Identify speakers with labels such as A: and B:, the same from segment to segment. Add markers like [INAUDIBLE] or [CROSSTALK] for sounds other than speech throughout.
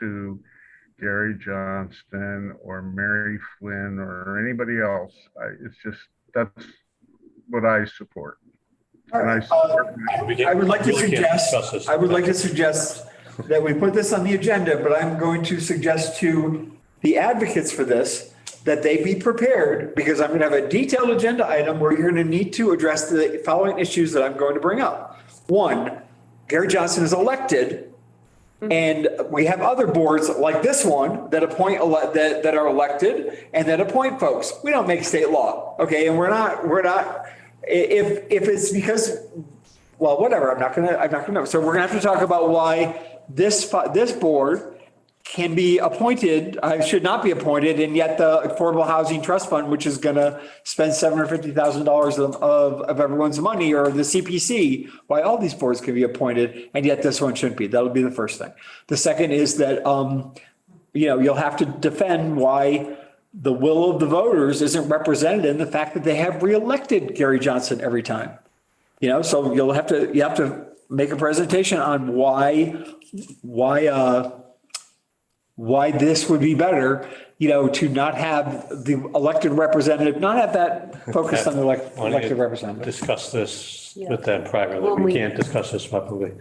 A: to Gary Johnston or Mary Flynn or anybody else. I, it's just, that's what I support.
B: All
A: And I
B: right,
A: support,
C: We can't-
B: I would like to
C: we can't
B: suggest,
C: discuss this.
B: I would like to suggest that we put this on the agenda, but I'm going to suggest to the advocates for this that they be prepared because I'm going to have a detailed agenda item where you're going to need to address the following issues that I'm going to bring up. One, Gary Johnson is elected and we have other boards like this one that appoint, ele- that, that are elected and that appoint folks. We don't make state law. Okay. And we're not, we're not, i- if, if it's because, well, whatever, I'm not gonna, I'm not gonna know. So we're gonna have to talk about why this, fi- this board can be appointed, I should not be appointed, and yet the Affordable Housing Trust Fund, which is gonna spend seven hundred fifty thousand dollars of, of, of everyone's money, or the CPC, why all these boards can be appointed, and yet this one shouldn't be. That'll be the first thing. The second is that, um, you know, you'll have to defend why the will of the voters isn't represented in the fact that they have reelected Gary Johnson every time. You know, so you'll have to, you have to make a presentation on why, why, uh, why this would be better, you know, to not have the elected representative, not have that focused on the elect-
C: Wanna
B: elected representative.
C: Discuss this
D: Yeah.
C: with them privately.
D: When
C: We
D: we-
C: can't discuss this publicly.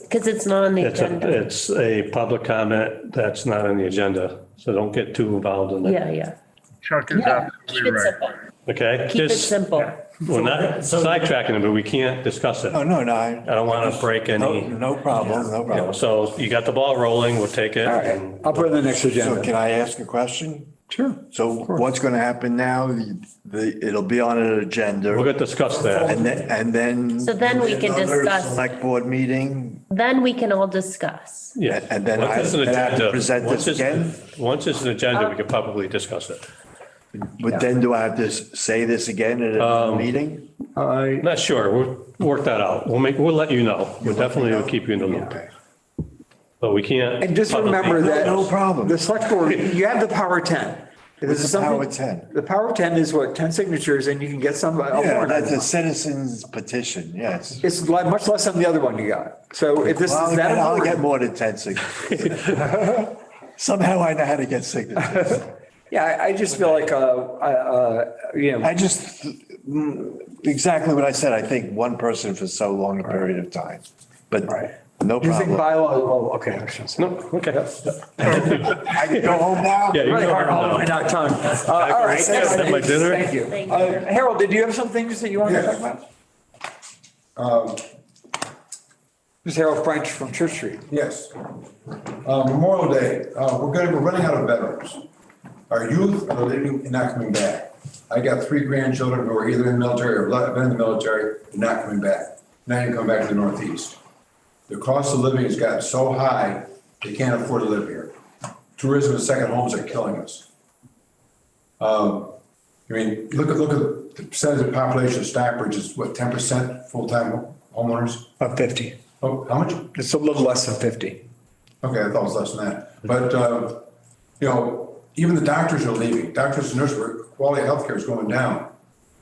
D: Because it's not on the
C: It's a,
D: agenda.
C: it's a public comment that's not on the agenda, so don't get too involved in it.
D: Yeah, yeah.
A: Chuck is
D: Yeah, Keep
A: absolutely
D: it
A: right.
D: simple.
C: Okay?
D: Keep it
C: Just-
D: simple.
C: We're not sidetracking it, but we can't discuss it.
E: No,
C: I
E: Oh, no, no, I-
C: don't want to break
E: Oh, no,
C: any,
E: no problem,
C: you
E: no
C: know,
E: problem.
C: so you got the ball rolling, we'll take it.
B: All right, I'll put it in the next
E: So
B: agenda.
E: can I ask a question?
B: Sure.
E: So what's going to happen now? The- The, it'll be on an agenda
C: We're going to discuss that.
E: and then, and then.
D: So then we can
E: Another
D: discuss.
E: Select board meeting
D: Then we can all discuss.
C: Yes.
E: And then
C: Once
E: I-
C: it's an
E: then I have to
C: agenda-
E: present
C: once
E: this
C: it's-
E: again?
C: Once it's an agenda,
D: Uh,
C: we can publicly discuss it.
E: but then do I have to s- say this again at
B: Um,
E: a meeting?
B: I,
C: Not sure. We'll work that out. We'll make, we'll let you know. We'll definitely will keep you in the loop.
E: Okay.
C: But we can't.
B: And just remember
C: publicly-
B: that.
E: No problem.
B: The select board, [LAUGHS] you have the power of ten. If this is
E: the power
B: something-
E: of 10?
B: The power of ten is what, ten signatures and you can get some. a
E: Yeah,
B: warrant
E: that's a
B: article.
E: citizen's petition, yes.
B: It's li- much less than the other one you got. So if this is
E: Well, I'll
B: that.
E: get- I'll get
B: important-
E: more than 10 signatures.
B: [LAUGHS]
E: Somehow I know how to get signatures.
B: Yeah, I, I just feel like, uh, uh, uh, you know,
E: I just, mm, exactly what I said, I think one person for so long a period of time, but
B: Right.
E: no
B: you think
E: problem.
B: bylaw, oh, okay. I shouldn't say.
C: No, okay.
E: I can go home now?
C: Yeah, you
B: Really
C: know
B: hard
C: her
B: all the way
C: now.
B: down tongue. Uh, All right.
C: I have my dinner.
B: Thank you.
D: Thank you.
B: Uh, Harold, did you have some things that you wanted to talk
F: Yes.
B: about? This is Harold French from Church Street.
F: Yes. Uh, Memorial Day, uh, we're gonna, we're running out of veterans. Our youth are leaving and not coming back. I got three grandchildren who are either in the military or have been in the military, and not coming back. Not even coming back to the Northeast. The cost of living has gotten so high, they can't afford to live here. Tourism and second homes are killing us. Um, I mean, look at, look at the percentage of population of Stockbridge is what, ten percent full-time homeowners?
B: About 50.
F: Oh, how much?
B: It's a little less than 50.
F: Okay, I thought it was less than that. But, uh, you know, even the doctors are leaving. Doctors and nurses, were- quality of healthcare is going down.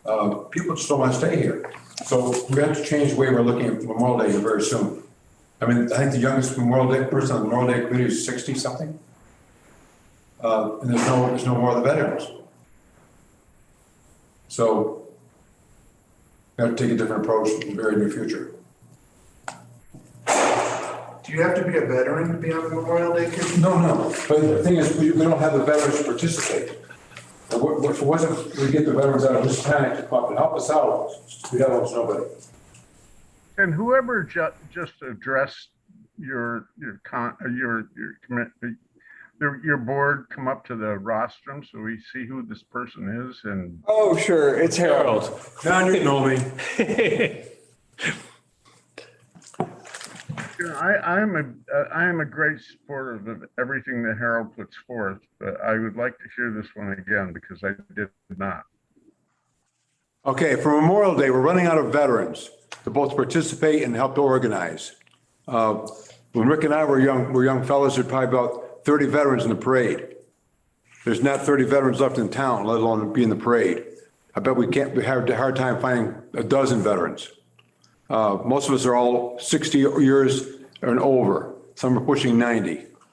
F: Uh, People just don't want to stay here. So we have to change the way we're looking at Memorial Day here very soon. I mean, I think the youngest Memorial Day person on the Memorial Day committee is 60-something. And there's no, there's no more of the veterans. So we have to take a different approach in the very near future.
G: Do you have to be a veteran to be on the Memorial Day Committee?
F: No, no, but the thing is, we, we don't have the veterans participate. If it wa- if it wasn't, we get the veterans out of this panic to come up and help us out, we'd have almost nobody.
A: And whoever ju- just addressed your, your con, uh, your, your commit, your, your board, come up to the rostrum so we see who this person is and
B: Oh, sure. It's Harold.
C: Harold, John, you know me.
A: you know, I, I'm a, uh, I am a great supporter of everything that Harold puts forth, but I would like to hear this one again because I did not.
F: Okay, for Memorial Day, we're running out of veterans to both participate and help to organize. Uh, When Rick and I were young, were young fellows, there'd probably about 30 veterans in the parade. There's not 30 veterans left in town, let alone be in the parade. I bet we can't, we have a hard time finding a dozen veterans. Uh, Most of us are all 60 years and over, some are pushing 90.